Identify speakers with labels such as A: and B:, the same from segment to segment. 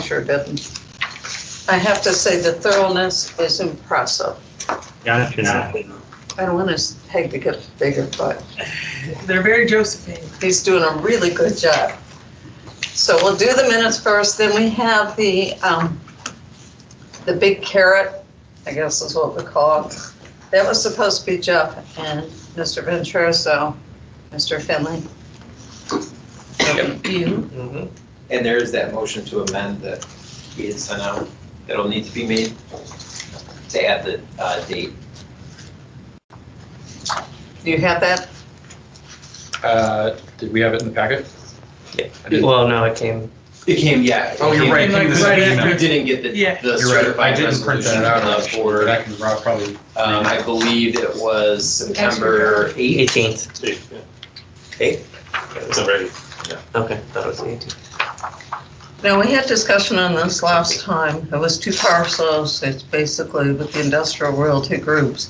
A: sure doesn't. I have to say the thoroughness is impressive.
B: Got it, you're not.
A: I don't want his head to get bigger, but
C: They're very Josephine.
A: he's doing a really good job. So we'll do the minutes first, then we have the, um, the big carrot, I guess is what we call it. That was supposed to be Jeff and Mr. Ventura, so Mr. Finley. You,
D: Mhm. And there is that motion to amend that we had sent out, that'll need to be made to add the uh, date.
A: do you have that?
E: Uh, Did we have it in the packet?
F: Well, no, it came.
D: It came, yeah.
E: Oh, you're
D: it
E: right.
D: came-
E: This is
C: Right
E: an
C: after-
D: We
E: email.
D: didn't get the,
C: Yeah.
D: the
E: You're right. I
D: certified
E: didn't print
D: resolution
E: that out.
D: uh,
E: For
D: for,
E: that can Rob probably.
D: um, I believe it was September 8th.
F: Eighteenth.
D: Eight?
B: It's already.
F: Okay, that was the eighteenth.
A: Now, we had discussion on this last time. It was two parcels. It's basically with the industrial royalty groups.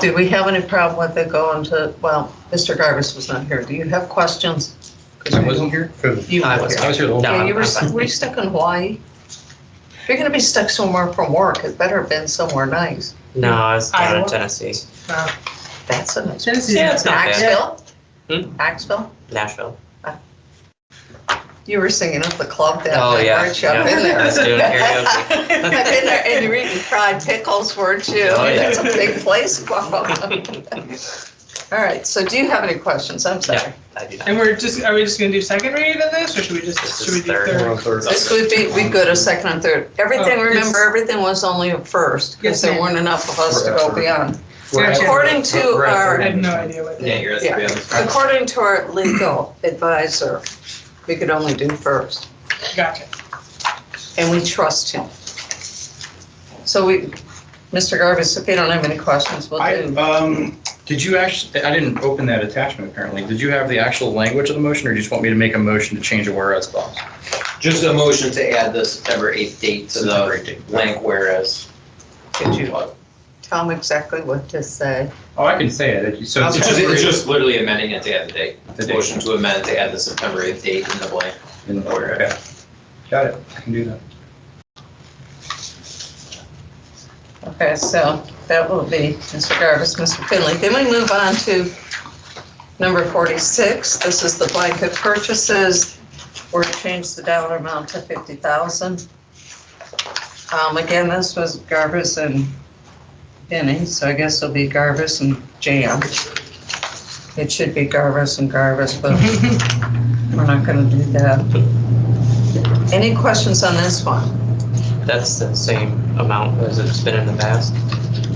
A: Do we have any problem with it going to, well, Mr. Garvis was not here. Do you have questions? 'Cause
E: I
A: you-
E: wasn't here. 'Cause
A: You
F: I
A: were
F: was
A: here.
E: I was here the whole
F: No,
E: time.
A: Yeah,
F: I'm-
A: you were,
F: I'm fine.
A: were you stuck in Hawaii? If you're gonna be stuck somewhere from work, it better have been somewhere nice.
F: No, I was down in
C: Iowa.
F: Tennessee,
A: That's a nice.
C: Tennessee's
F: Yeah,
C: not
F: it's not bad.
A: Knoxville?
F: Hmm?
A: Knoxville?
F: Nashville.
A: You were singing at the club that
F: Oh,
A: night,
F: yeah,
A: weren't you? I've
F: yeah.
A: been there.
F: I was doing karaoke.
A: I've been there, and you were eating fried pickles, weren't you?
F: Oh, yeah.
A: That's a big place. Wow. All right, so do you have any questions? I'm sorry.
F: I do not.
C: And we're just, are we just gonna do second read of this, or should we
F: This
C: just,
F: is
C: should we do
F: third.
E: We're
C: third?
E: on third.
A: This would be, we go to second and third. Everything,
C: Oh, it's-
A: remember, everything was only a first, because
C: Yes,
A: there
C: ma'am.
A: weren't enough of us to go beyond.
E: We're at-
A: According to
E: we're at
A: our-
C: I
E: third.
C: have no idea what
D: Yeah,
C: that is.
D: you're at
A: Yeah.
D: the.
A: According to our legal advisor, we could only do first,
C: Gotcha.
A: and we trust him. So we, Mr. Garvis, if you don't have any questions, we'll
E: I,
A: do.
E: um, did you actually, I didn't open that attachment apparently. Did you have the actual language of the motion or you just want me to make a motion to change a whereas clause?
D: Just a motion to add the September 8th date to
E: September
D: the
E: 8th.
D: blank whereas.
A: Could you tell him exactly what to say?
E: Oh, I can say it. So
D: It's
E: it's
D: just- it's
E: just.
D: just literally amending it to add the date.
E: The date.
D: Motion to amend to add the September 8th date in the blank.
E: Okay. Got it. I can do that.
A: Okay, so that will be Mr. Garvis, Mr. Finley. Then we move on to number 46. This is the blanket purchases. We're to change the dollar amount to 50,000. Um, Again, this was Garvis and Benny, so I guess it'll be Garvis and Jan. It should be Garvis and Garvis, but we're not going to do that. Any questions on this one?
F: That's the same amount as it's been in the past,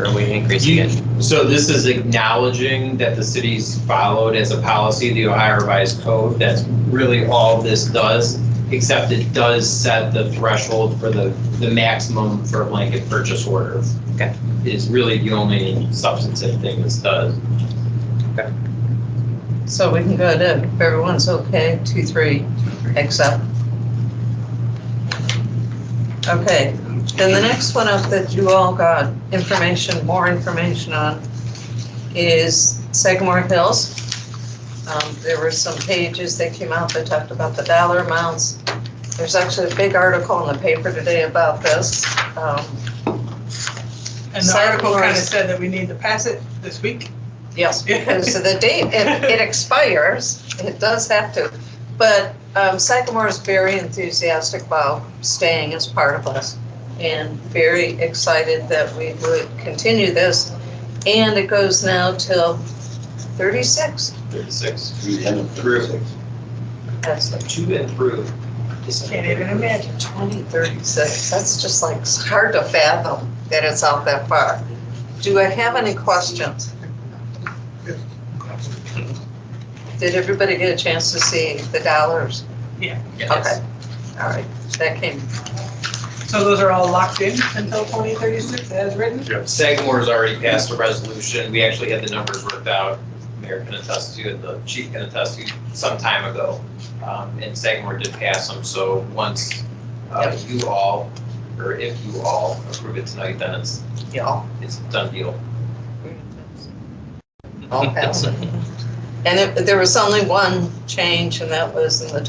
F: or we increasing
D: You-
F: it?
D: So this is acknowledging that the city's followed as a policy the Ohio Revised Code. That's really all this does, except it does set the threshold for the, the maximum for a blanket purchase order.
F: Okay.
D: Is really the only substantive thing this does.
A: So we can go to, if everyone's okay, two, three, accept. Okay, then the next one up that you all got information, more information on is Sagamore Hills. Um, There were some pages that came out that talked about the dollar amounts. There's actually a big article in the paper today about this. Um,
C: And the
A: Second
C: article
A: read.
C: kinda said that we need to pass it this week.
A: Yes, because of the date, it, it expires, it does have to. But um, Sagamore is very enthusiastic about staying as part of us and very excited that we would continue this. And it goes now till 36.
D: Thirty-six. Through,
A: That's like
D: to and through.
C: Can't even imagine.
A: 2036. That's just like it's hard to fathom that it's out that far. Do I have any questions? Did everybody get a chance to see the dollars? Okay, all right, that came,
C: So those are all locked in until twenty thirty-six as written?
D: Sagamore's already passed a resolution, we actually had the numbers worked out, Mayor can attest to, and the chief can attest to, some time ago. Um, And Sagamore did pass them, so once uh, you all, or if you all approve it tonight, then it's,
A: y'all.
D: it's a done deal.
A: All passed. And it- there was only one change, and that was in the